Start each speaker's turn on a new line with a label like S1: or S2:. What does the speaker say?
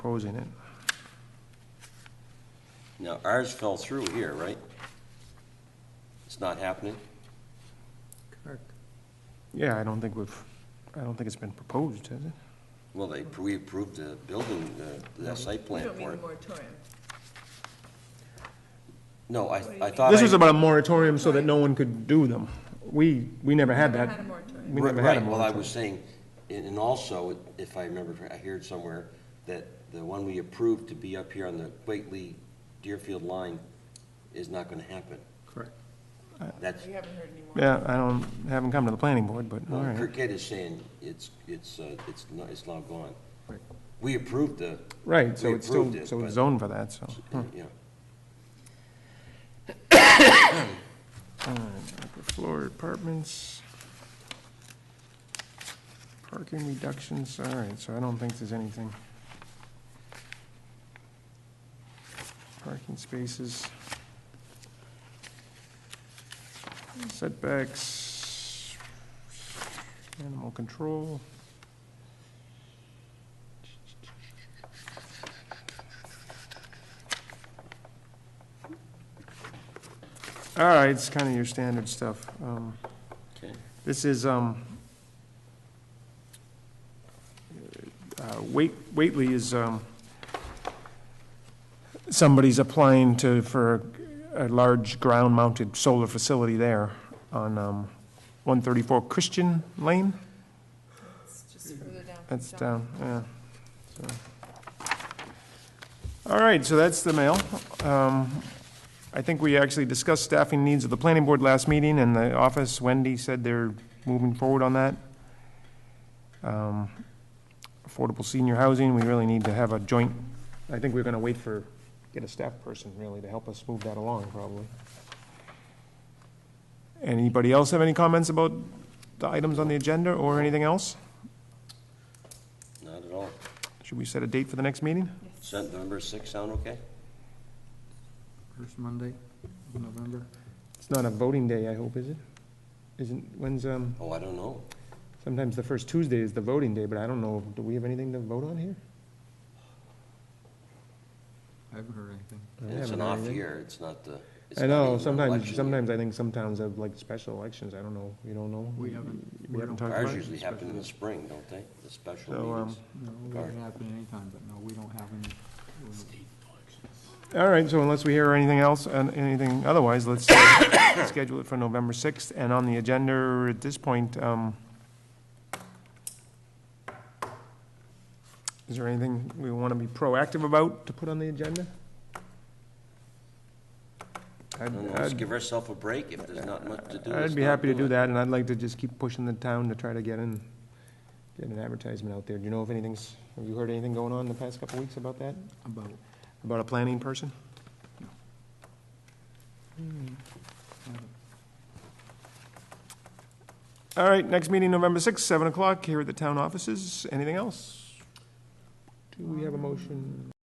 S1: proposing it.
S2: Now, ours fell through here, right? It's not happening?
S1: Yeah, I don't think we've, I don't think it's been proposed, has it?
S2: Well, they, we approved the building, the, the site
S3: You
S2: plan
S3: don't mean
S2: for
S3: the
S2: it.
S3: moratorium.
S2: No, I,
S3: do you
S2: I
S3: mean?
S2: thought I.
S1: This was about a moratorium so that no one could do them. We, we never had
S3: We
S1: that.
S3: never had a moratorium.
S1: We
S2: Right,
S1: never had a
S2: right. Well, I
S1: moratorium.
S2: was saying, and and also, if I remember, I heard somewhere that the one we approved to be up here on the Whately Deerfield line is not gonna happen.
S1: Correct.
S2: That's,
S3: We haven't heard any more.
S1: Yeah, I don't, haven't come to the planning board, but all
S2: well,
S1: right.
S2: Kirkhead is saying it's, it's, uh, it's not, it's now gone. We approved the,
S1: Right, so
S2: We
S1: it's still,
S2: approved it,
S1: so it's
S2: but-
S1: zoned for that, so. huh.
S2: yeah.
S1: Upper floor apartments. Parking reductions, all right, so I don't think there's anything. Parking spaces. Setbacks. Animal control. All right, it's kind of your standard stuff. Um,
S2: Okay.
S1: This is, um, uh, Wait, Whately is, um, somebody's applying to, for a large ground-mounted solar facility there on, um, one thirty-four Christian Lane.
S3: It's just further down. from
S1: That's
S3: John.
S1: down, yeah. So. All right, so that's the mail. Um, I think we actually discussed staffing needs of the planning board last meeting, and the office, Wendy said they're moving forward on that. Um, Affordable senior housing, we really need to have a joint, I think we're gonna wait for, get a staff person really to help us move that along, probably. Anybody else have any comments about the items on the agenda or anything else?
S2: Not at all.
S1: Should we set a date for the next meeting?
S2: Does that number six sound okay?
S4: First Monday of November.
S1: It's not a voting day, I hope, is it? Isn't, when's, um,
S2: Oh, I don't know.
S1: sometimes the first Tuesday is the voting day, but I don't know, do we have anything to vote on here?
S4: I haven't heard anything.
S1: I
S2: It's
S1: haven't
S2: an
S1: heard
S2: off
S1: anything.
S2: year, it's not the. it's
S1: I
S2: not even
S1: know,
S2: an election
S1: sometimes,
S2: year.
S1: sometimes I think some towns have like special elections, I don't know, you don't know?
S4: We haven't-
S1: We
S4: we
S1: haven't
S4: don't-
S1: talked about
S2: Ours
S1: it?
S2: Mm, usually happen in the spring, don't they? The special
S1: So, um,
S2: meetings.
S4: No, it
S2: Alright.
S4: can happen anytime, but no, we don't have any. uh,
S1: All right, so unless we hear anything else, and anything otherwise, let's uh, schedule it for November sixth, and on the agenda at this point, um, is there anything we want to be proactive about to put on the agenda?
S2: I
S1: I'd-
S2: don't know, let's
S1: I'd
S2: give ourselves a break if there's not much to do. let's
S1: I'd be
S2: not
S1: happy to do
S2: it.
S1: that, and I'd like to just keep pushing the town to try to get in, get an advertisement out there. Do you know if anything's, have you heard anything going on the past couple weeks about that?
S4: About,
S1: About a planning person? Hmm. All right, next meeting, November 6th, 7 o'clock, here at the town offices. Anything else? Do we have a motion?